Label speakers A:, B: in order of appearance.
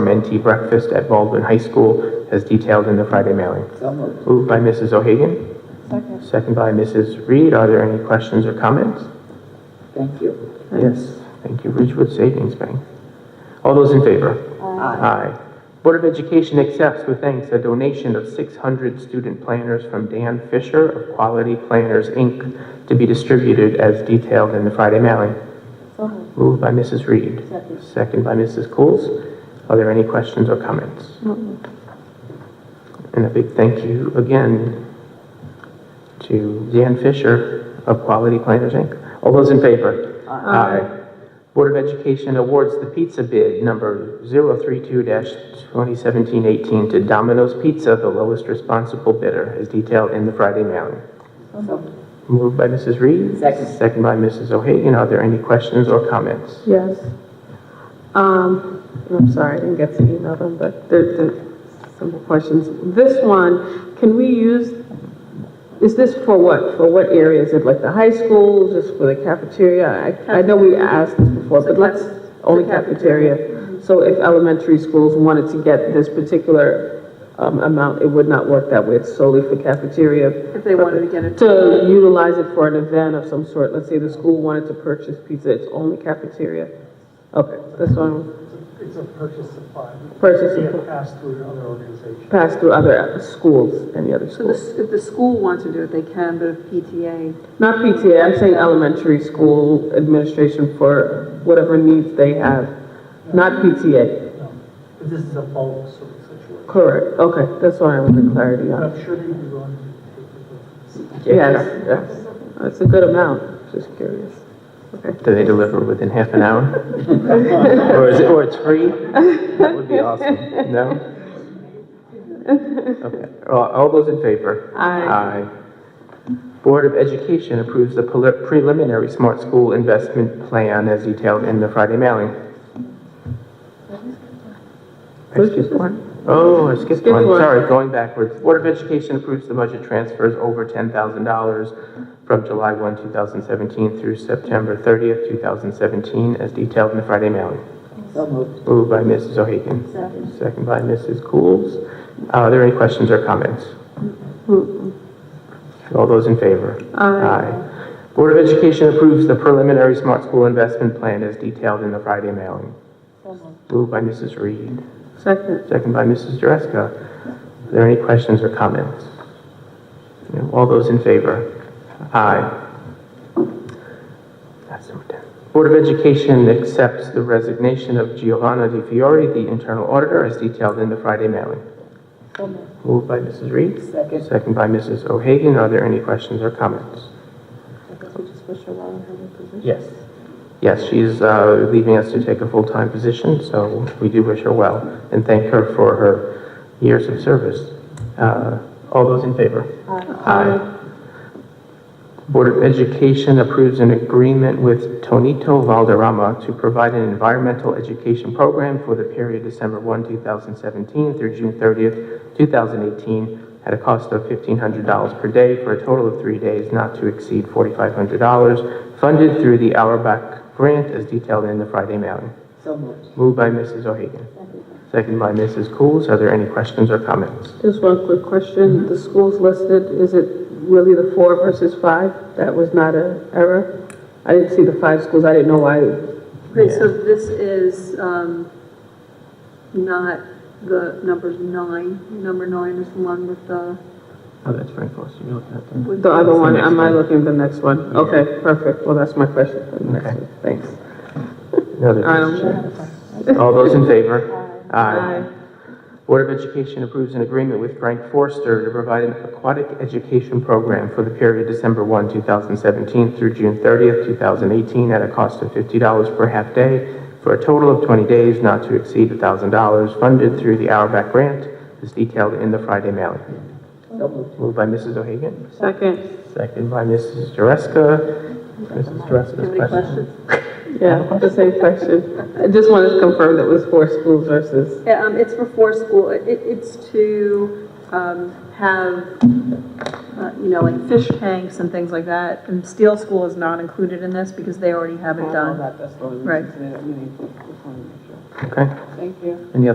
A: and tea breakfast at Baldwin High School as detailed in the Friday mailing.
B: So moved.
A: Moved by Mrs. O'Hagan,
C: Second.
A: second by Mrs. Reed. Are there any questions or comments?
B: Thank you.
A: Yes. Thank you, Ridgewood Savings Bank. All those in favor?
B: Aye.
A: Aye. Board of Education accepts with thanks a donation of 600 student planners from Dan Fisher of Quality Planners, Inc., to be distributed as detailed in the Friday mailing.
C: So moved.
A: Moved by Mrs. Reed.
C: Second.
A: Second by Mses. Coles. Are there any questions or comments? And a big thank you again to Dan Fisher of Quality Planners, Inc. All those in favor? Aye. Board of Education awards the pizza bid number 032-2017-18 to Domino's Pizza, the lowest responsible bidder, as detailed in the Friday mailing.
C: So moved.
A: Moved by Mrs. Reed.
B: Second.
A: Second by Mrs. O'Hagan. Are there any questions or comments?
D: Yes. Um, I'm sorry, I didn't get to email them, but they're, they're simple questions. This one, can we use, is this for what? For what area? Is it like the high school, just for the cafeteria? I, I know we asked this before, but let's, only cafeteria. So if elementary schools wanted to get this particular, um, amount, it would not work that way. It's solely for cafeteria.
C: If they wanted to get it.
D: To utilize it for an event of some sort, let's say the school wanted to purchase pizza, it's only cafeteria? Okay, this one,
E: It's a purchase supply.
D: Purchase
E: We
D: supply.
E: have passed through to other organizations.
D: pass through other schools, any other
C: So the,
D: schools?
C: s- if the school wants to do it, they can, but if PTA,
D: Not PTA, I'm saying elementary school administration for whatever needs they have, not PTA.
E: No, Um, But this is a bulk sort of situation.
D: Correct, okay, that's what I wanted clarity
E: But
D: on.
E: I'm sure they'd be willing to take it.
D: Yes, yes, that's a good amount, just curious. Okay.
A: Do they deliver within half an hour? Or is it, or it's free? That would be awesome. No? Okay. All all those in favor?
D: Aye.
A: Aye. Board of Education approves the preli- preliminary Smart School Investment Plan as detailed in the Friday mailing. I skipped one? Oh, I skipped
D: Skip
A: one.
D: one.
A: Sorry, going backwards. Board of Education approves the budget transfers over $10,000 from July 1, 2017 through September 30th, 2017, as detailed in the Friday mailing.
B: So moved.
A: Moved by Mrs. O'Hagan. Second. by Mrs. Coles. Are there any questions or comments? All those in favor? Aye. Board of Education approves the preliminary Smart School Investment Plan as detailed in the Friday mailing. Moved by Mrs. Reed.
D: Second,
A: Second by Mrs. Dreska. Are there any questions or comments? No, All those in favor? Aye. That's number 10. Board of Education accepts the resignation of Giovanna Di Fiore, the internal auditor, as detailed in the Friday mailing. Moved by Mrs. Reed.
B: Second.
A: Second by Mrs. O'Hagan. Are there any questions or comments?
C: I guess we just wish her well in her new position.
A: Yes. Yes, she's uh, leaving us to take a full-time position, so we do wish her well and thank her for her years of service. Uh, All those in favor? Aye. Board of Education approves an agreement with Tonito Valderrama to provide an environmental education program for the period December 1, 2017 through June 30th, 2018, at a cost of $1,500 per day for a total of three days, not to exceed $4,500, funded through the Auerbach Grant as detailed in the Friday mailing.
B: So moved.
A: Moved by Mrs. O'Hagan. Second by Mrs. Coles. Are there any questions or comments?
D: just one quick question, the schools listed, is it really the four versus five? That was not a error? I didn't see the five schools, I didn't know why,
C: Okay, so this is, um, not the numbers nine, number nine is the one with the,
A: Oh, that's very close. You're looking at them.
C: with
D: the other one,
A: next
D: am I
A: one.
D: looking at the next one? Okay, perfect, well, that's my question for the next
A: Okay.
D: one, thanks.
A: No, they're-
D: Um,
A: All those in favor? Aye. Board of Education approves an agreement with Frank Forster to provide an aquatic education program for the period December 1, 2017 through June 30th, 2018, at a cost of $50 per half day for a total of 20 days, not to exceed $1,000, funded through the Auerbach Grant, as detailed in the Friday mailing.
B: So moved.
A: Moved by Mrs. O'Hagan,
D: Second,
A: second by Mrs. Dreska. Mrs. Dreska's
C: Any
A: question.
C: questions?
D: yeah, the same question. I just wanted to confirm that it was four schools versus,
C: Yeah, um, it's for four school, it, it- it's to, um, have, uh, you know, like fish tanks and things like that. And Steel School is not included in this because they already have it done. Right.
A: Okay.
D: thank you.
A: Any